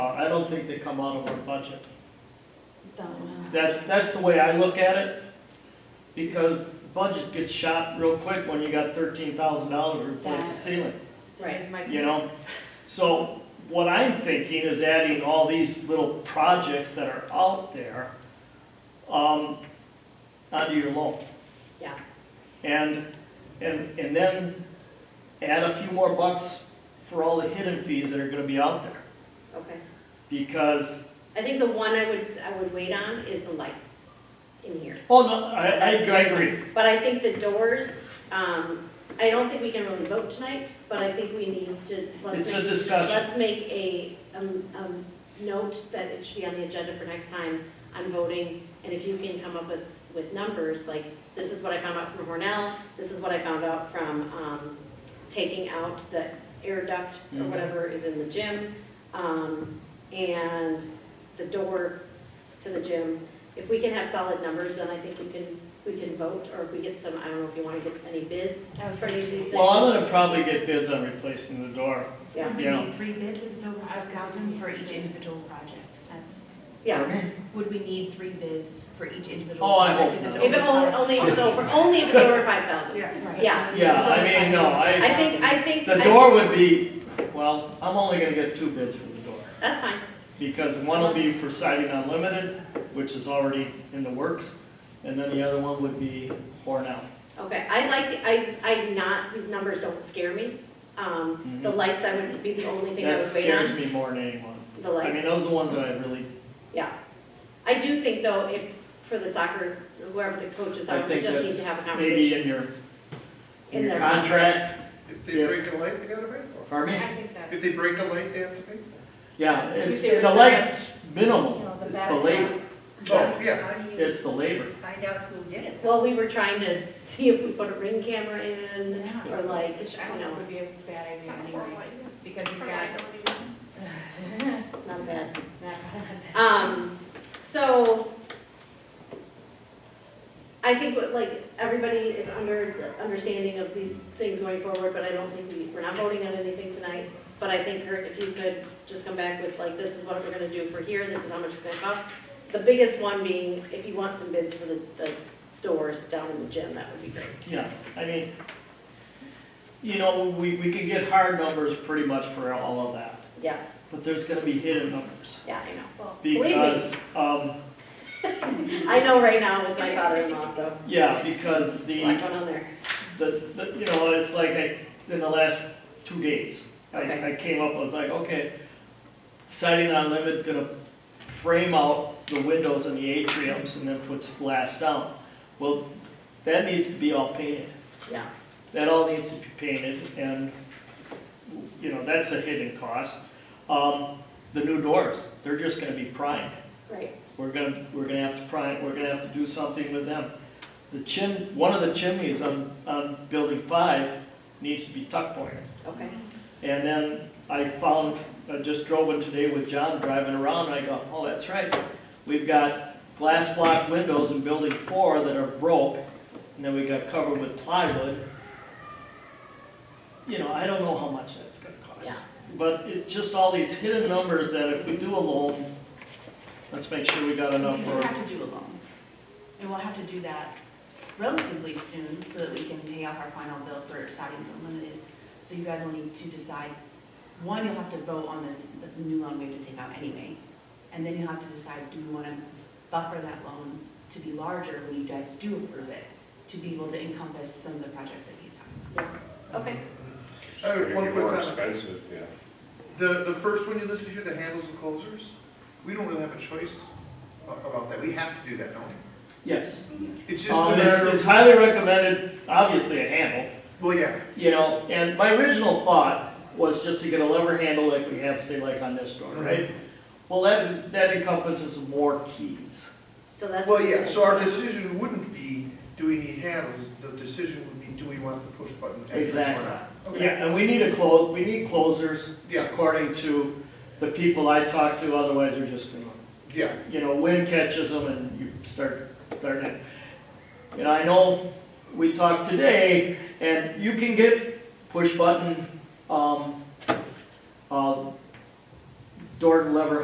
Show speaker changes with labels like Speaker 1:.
Speaker 1: don't think they come out of our budget.
Speaker 2: Don't know.
Speaker 1: That's, that's the way I look at it, because budget gets shot real quick when you got thirteen thousand dollars to replace the
Speaker 2: That-
Speaker 1: ceiling,
Speaker 2: Right.
Speaker 1: you know? So what I'm thinking is adding all these little projects that are out there, um, onto your loan.
Speaker 2: Yeah.
Speaker 1: And, and, and then add a few more bucks for all the hidden fees that are gonna be out there,
Speaker 2: Okay.
Speaker 1: because,
Speaker 2: I think the one I would, I would wait on is the lights in here.
Speaker 1: oh, no, I, I I agree.
Speaker 2: But I think the doors, um, I don't think we can really vote tonight, but I think we need to, let's
Speaker 1: It's a
Speaker 2: make,
Speaker 1: discussion.
Speaker 2: let's make a, um, um, note that it should be on the agenda for next time on voting. And if you can come up with, with numbers, like, this is what I found out from Hornell, this is what I found out from, um, taking out the air duct or
Speaker 1: Mhm.
Speaker 2: whatever is in the gym, um, and the door to the gym. If we can have solid numbers, then I think we can, we can vote, or if we get some, I don't know if you want to get any bids
Speaker 3: I was
Speaker 2: for any of
Speaker 3: crazy.
Speaker 2: these things.
Speaker 1: Well, I'm gonna probably get bids on replacing the door.
Speaker 2: Yeah,
Speaker 3: We
Speaker 1: Yeah.
Speaker 3: need three bids if it's over five thousand for each individual project. That's,
Speaker 2: yeah.
Speaker 3: would we need three bids for each individual?
Speaker 1: Oh, I
Speaker 3: project
Speaker 1: hope
Speaker 3: it's
Speaker 1: not.
Speaker 2: If it
Speaker 3: over
Speaker 2: only,
Speaker 3: five-
Speaker 2: only if it's over, only if it's over five
Speaker 4: oh,
Speaker 2: thousand.
Speaker 3: Right,
Speaker 2: yeah.
Speaker 3: so it's
Speaker 1: Yeah,
Speaker 3: over
Speaker 1: I mean, no,
Speaker 3: 5,000.
Speaker 2: I
Speaker 1: I,
Speaker 2: think, I think.
Speaker 1: the
Speaker 2: I-
Speaker 1: door would be, well, I'm only gonna get two bids for the door.
Speaker 2: That's fine,
Speaker 1: Because one will be for siding unlimited, which is already in the works, and then the other one would be Hornell.
Speaker 2: okay, I like, I, I not, these numbers don't scare me. Um, the
Speaker 1: Mhm.
Speaker 2: lights, I would be the only thing I
Speaker 1: That
Speaker 2: would wait
Speaker 1: scares
Speaker 2: on,
Speaker 1: me more than anyone.
Speaker 2: the
Speaker 1: I mean,
Speaker 2: lights,
Speaker 1: those are the ones that I really,
Speaker 2: yeah. I do think though, if, for the soccer, whoever the coaches
Speaker 1: I
Speaker 2: are, we
Speaker 1: think
Speaker 2: just need
Speaker 1: that's
Speaker 2: to have a
Speaker 1: maybe
Speaker 2: conversation.
Speaker 1: in your, in
Speaker 2: In
Speaker 1: your
Speaker 2: their-
Speaker 1: contract,
Speaker 5: If
Speaker 1: Yeah.
Speaker 5: they break a light, they gotta pay for
Speaker 1: pardon me?
Speaker 4: I think that's,
Speaker 5: it. If they break a light, they have to pay
Speaker 1: Yeah, it's,
Speaker 4: Maybe
Speaker 1: the
Speaker 4: they're-
Speaker 1: light's
Speaker 4: you
Speaker 1: minimal,
Speaker 4: know,
Speaker 1: it's
Speaker 4: the
Speaker 1: the
Speaker 4: background.
Speaker 1: labor,
Speaker 5: for it. Oh, yeah.
Speaker 4: How do you
Speaker 1: it's the labor.
Speaker 4: find out who did it?
Speaker 2: Well, we were trying to see if we put a ring camera in,
Speaker 3: Yeah.
Speaker 2: or like,
Speaker 4: Which
Speaker 2: I
Speaker 4: I
Speaker 2: don't
Speaker 4: don't know
Speaker 2: know,
Speaker 4: would be a bad
Speaker 3: It's
Speaker 4: idea
Speaker 3: not
Speaker 4: anyway, because you've got.
Speaker 2: not bad.
Speaker 3: Not-
Speaker 2: Um, so, I think what, like, everybody is under, the understanding of these things going forward, but I don't think we, we're not voting on anything tonight. But I think, Kurt, if you could just come back with like, this is what we're gonna do for here, this is how much it's gonna cost. The biggest one being, if you want some bids for the, the doors down in the gym, that would be great.
Speaker 1: Yeah, I mean, you know, we, we can get hard numbers pretty much for all of that,
Speaker 2: Yeah,
Speaker 1: but there's gonna be hidden numbers.
Speaker 2: yeah, I know. Believe me.
Speaker 1: Because, um,
Speaker 2: I know right now with my father-in-law, so,
Speaker 1: yeah, because the.
Speaker 2: black one on there.
Speaker 1: the, the, you know, it's like I, in the last two days, I, I came up, I was like, okay, siding unlimited, gonna frame out the windows and the atriums and then put splash down. Well, that needs to be all painted.
Speaker 2: Yeah.
Speaker 1: That all needs to be painted and, you know, that's a hidden cost. Um, the new doors, they're just gonna be primed.
Speaker 2: Right,
Speaker 1: We're gonna, we're gonna have to pry, we're gonna have to do something with them. The chim, one of the chimneys on, on building five needs to be tuck pointed.
Speaker 2: okay,
Speaker 1: And then I found, I just drove in today with John driving around, and I go, oh, that's right. We've got glass block windows in building four that are broke, and then we got covered with plywood. You know, I don't know how much that's gonna cost.
Speaker 2: Yeah.
Speaker 1: But it's just all these hidden numbers that if we do a loan, let's make sure we got enough
Speaker 3: We do
Speaker 1: for.
Speaker 3: have to do a loan. And we'll have to do that relatively soon so that we can pay off our final bill for Sidings Unlimited. So you guys will need to decide, one, you'll have to vote on this, the new loan we have to take out anyway. And then you'll have to decide, do we want to buffer that loan to be larger when you guys do approve it? To be able to encompass some of the projects that he's talking about.
Speaker 2: okay.
Speaker 5: I have Oh, one
Speaker 6: It'd be more
Speaker 5: quick comment.
Speaker 6: expensive, yeah.
Speaker 5: The, the first one you listed here, the handles and closers, we don't really have a choice a- about that. We have to do that, don't we?
Speaker 1: Yes.
Speaker 5: It's just
Speaker 1: Um,
Speaker 5: a
Speaker 1: It's
Speaker 5: matter
Speaker 1: it's
Speaker 5: of,
Speaker 1: highly recommended, obviously a handle.
Speaker 5: well, yeah,
Speaker 1: You know, and my original thought was just to get a lever handle like we have, say, like on this door, right? Well, that, that encompasses more keys.
Speaker 2: So that's.
Speaker 5: well,
Speaker 2: what we
Speaker 5: yeah.
Speaker 2: said.
Speaker 5: So our decision wouldn't be, do we need handles? The decision would be, do we want the push button? decorations or
Speaker 1: Exactly.
Speaker 5: not? Okay.
Speaker 1: Yeah, and we need a close, we need closers
Speaker 5: Yeah,
Speaker 1: according to the people I talk to, otherwise they're just gonna,
Speaker 5: yeah.
Speaker 1: you know, wind catches them and you start, start it. And I know we talked today, and you can get push button, um, uh, door lever